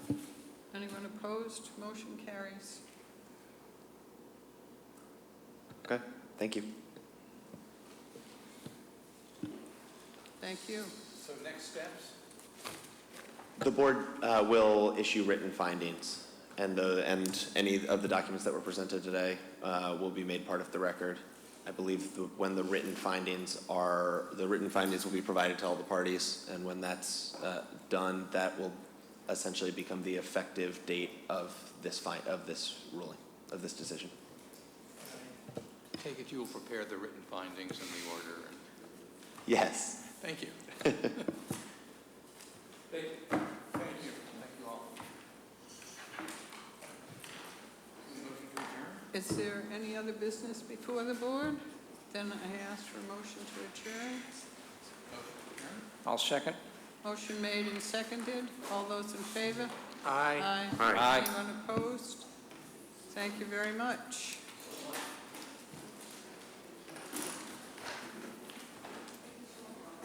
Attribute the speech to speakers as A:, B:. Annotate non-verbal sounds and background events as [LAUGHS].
A: Anyone opposed? Motion carries.
B: Okay, thank you.
A: Thank you.
C: So next steps?
B: The board uh, will issue written findings, and the, and any of the documents that were presented today uh, will be made part of the record. I believe the- when the written findings are, the written findings will be provided to all the parties, and when that's uh, done, that will essentially become the effective date of this fine, of this ruling, of this decision.
C: Take it you will prepare the written findings in the order, and,
B: Yes.
C: [LAUGHS] thank you. Thank you. Thank you. Thank you all. Motion to adjourn?
A: Is there any other business before the board? Then I ask for a motion to adjourn.
C: Motion to adjourn? I'll second.
A: Motion made and seconded. All those in favor?
C: Aye.
A: Aye.
C: Aye.
A: Anyone opposed? Thank you very much.